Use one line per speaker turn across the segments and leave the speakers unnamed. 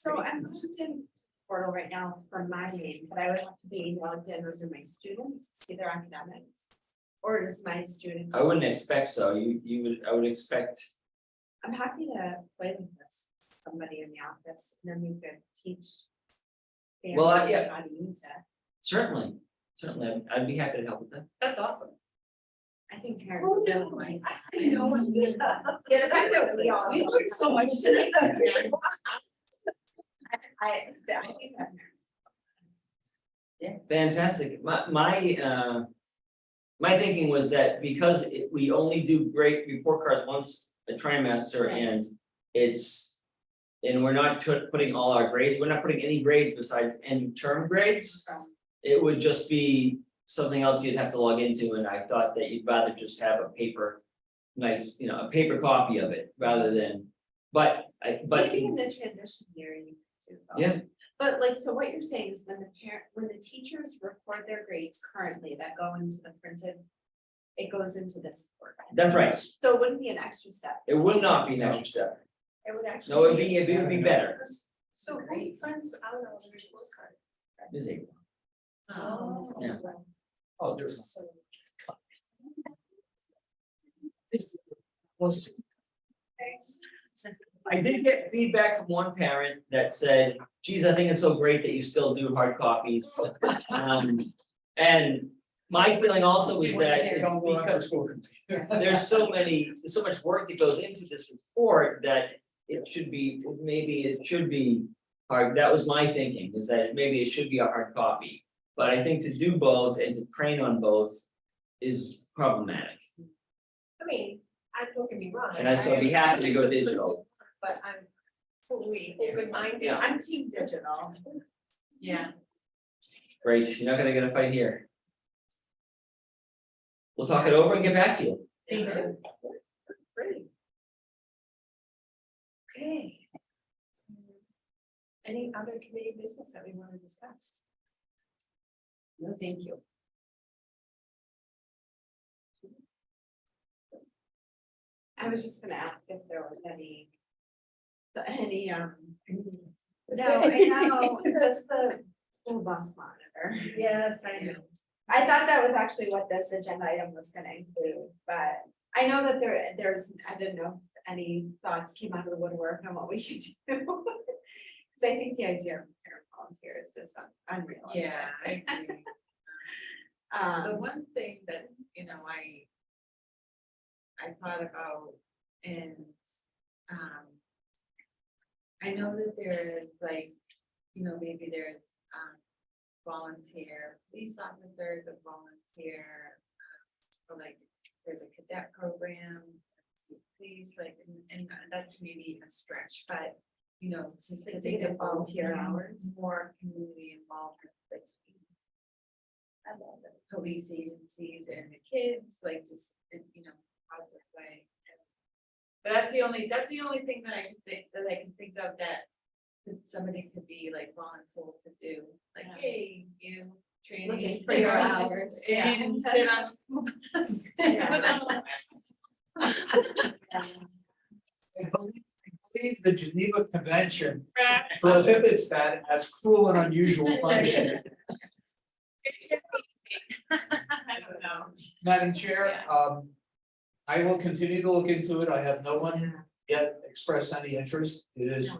So I'm logged in portal right now for my name, but I would have to be logged in as my students, see their academics. Or as my student,
I wouldn't expect so, you, you would, I would expect,
I'm happy to play with this, somebody in the office, and then you could teach.
Well,
families
I- yeah.
How to use it,
certainly, certainly, I'd- I'd be happy to help with that.
That's awesome.
I think.
Oh, yeah. I know.
Yeah, the fact that we all.
We learned so much today.
I, I think that.
Fantastic, my, my, uh. My thinking was that because it, we only do great report cards once a trimester
Yes.
and it's. And we're not tut- putting all our grades, we're not putting any grades besides end term grades.
Right.
It would just be something else you'd have to log into, and I thought that you'd rather just have a paper. Nice, you know, a paper copy of it rather than, but I, but
Maybe in the transition year you could do. both.
Yeah.
But like, so what you're saying is when the parent, when the teachers record their grades currently that go into the printed. It goes into this. format.
that's right,
So it wouldn't be an extra step.
it would not be an extra step,
It would actually.
no, it'd be, it would be better.
So who sends out all the report cards?
Is it?
Oh.
Yeah. Oh, there's. I did get feedback from one parent that said, geez, I think it's so great that you still do hard copies. Um, and my feeling also is that it's because there's so many, there's so much work that goes into this report that it should be, maybe it should be hard, that was my thinking, is that maybe it should be a hard copy. But I think to do both and to train on both is problematic,
I mean, I don't get me wrong.
and I'd so be happy to go digital.
But I'm fully
Yeah.
open-minded.
I'm team digital.
Yeah.
Great, you're not gonna get a fight here. We'll talk it over and get back to you.
Thank you.
Great. Okay. So, Any other committee business that we want to discuss? No, thank you. I was just gonna ask if there was any. the- Any, um. No, I know, that's the school bus monitor.
Yes, I know.
I thought that was actually what this agenda item was gonna include, but I know that there, there's, I didn't know if any thoughts came out of the woodwork on what we should do. Cause I think the idea of parent volunteer is just un- unrealistic.
Yeah. I agree. The
Um,
one thing that, you know, I. I thought about and, um. I know that there is like, you know, maybe there's, um, volunteer police officers, a volunteer. um, Or like, there's a cadet program, please, like, and- and that's maybe a stretch, but. You know, just to think of volunteer hours, more community involvement, like. I love it. Police agencies and the kids, like just, in, you know, positive way. And- But that's the only, that's the only thing that I can think, that I can think of that that somebody could be like voluntold to do, like,
Yeah.
hey, you
Look
training
at
for
your
your
hours,
hours. And
yeah.
sit on the school bus.
Yeah.
I believe I believe the Geneva Convention prohibits that as cruel and unusual punishment.
I don't know.
Madam Chair, um, I will continue to look into it. I have no one yet expressed any interest. It is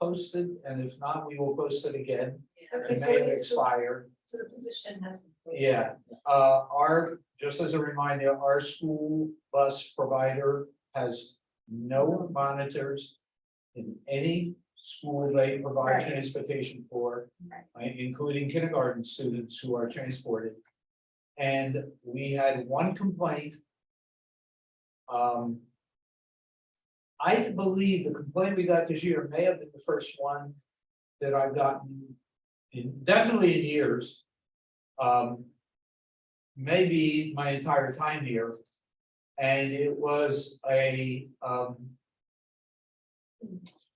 posted, and if not, we will post it again.
Yeah.
Okay,
It
so
may
it's-
expire.
So the position has.
Yeah, uh, our, just as a reminder, our school bus provider has no monitors. In any school they provide
Right.
transportation for,
Right.
uh, including kindergarten students who are transported. And we had one complaint. Um. I believe the complaint we got this year may have been the first one that I've gotten in, definitely in years. Um. Maybe my entire time here. And it was a, um.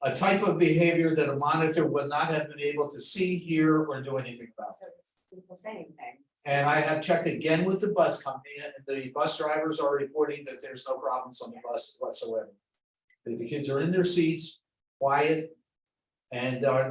A type of behavior that a monitor would not have been able to see, hear, or do anything about.
So it's people saying things.
And I have checked again with the bus company, and the bus drivers are reporting that there's no problems on the bus whatsoever. That The kids are in their seats, quiet, And our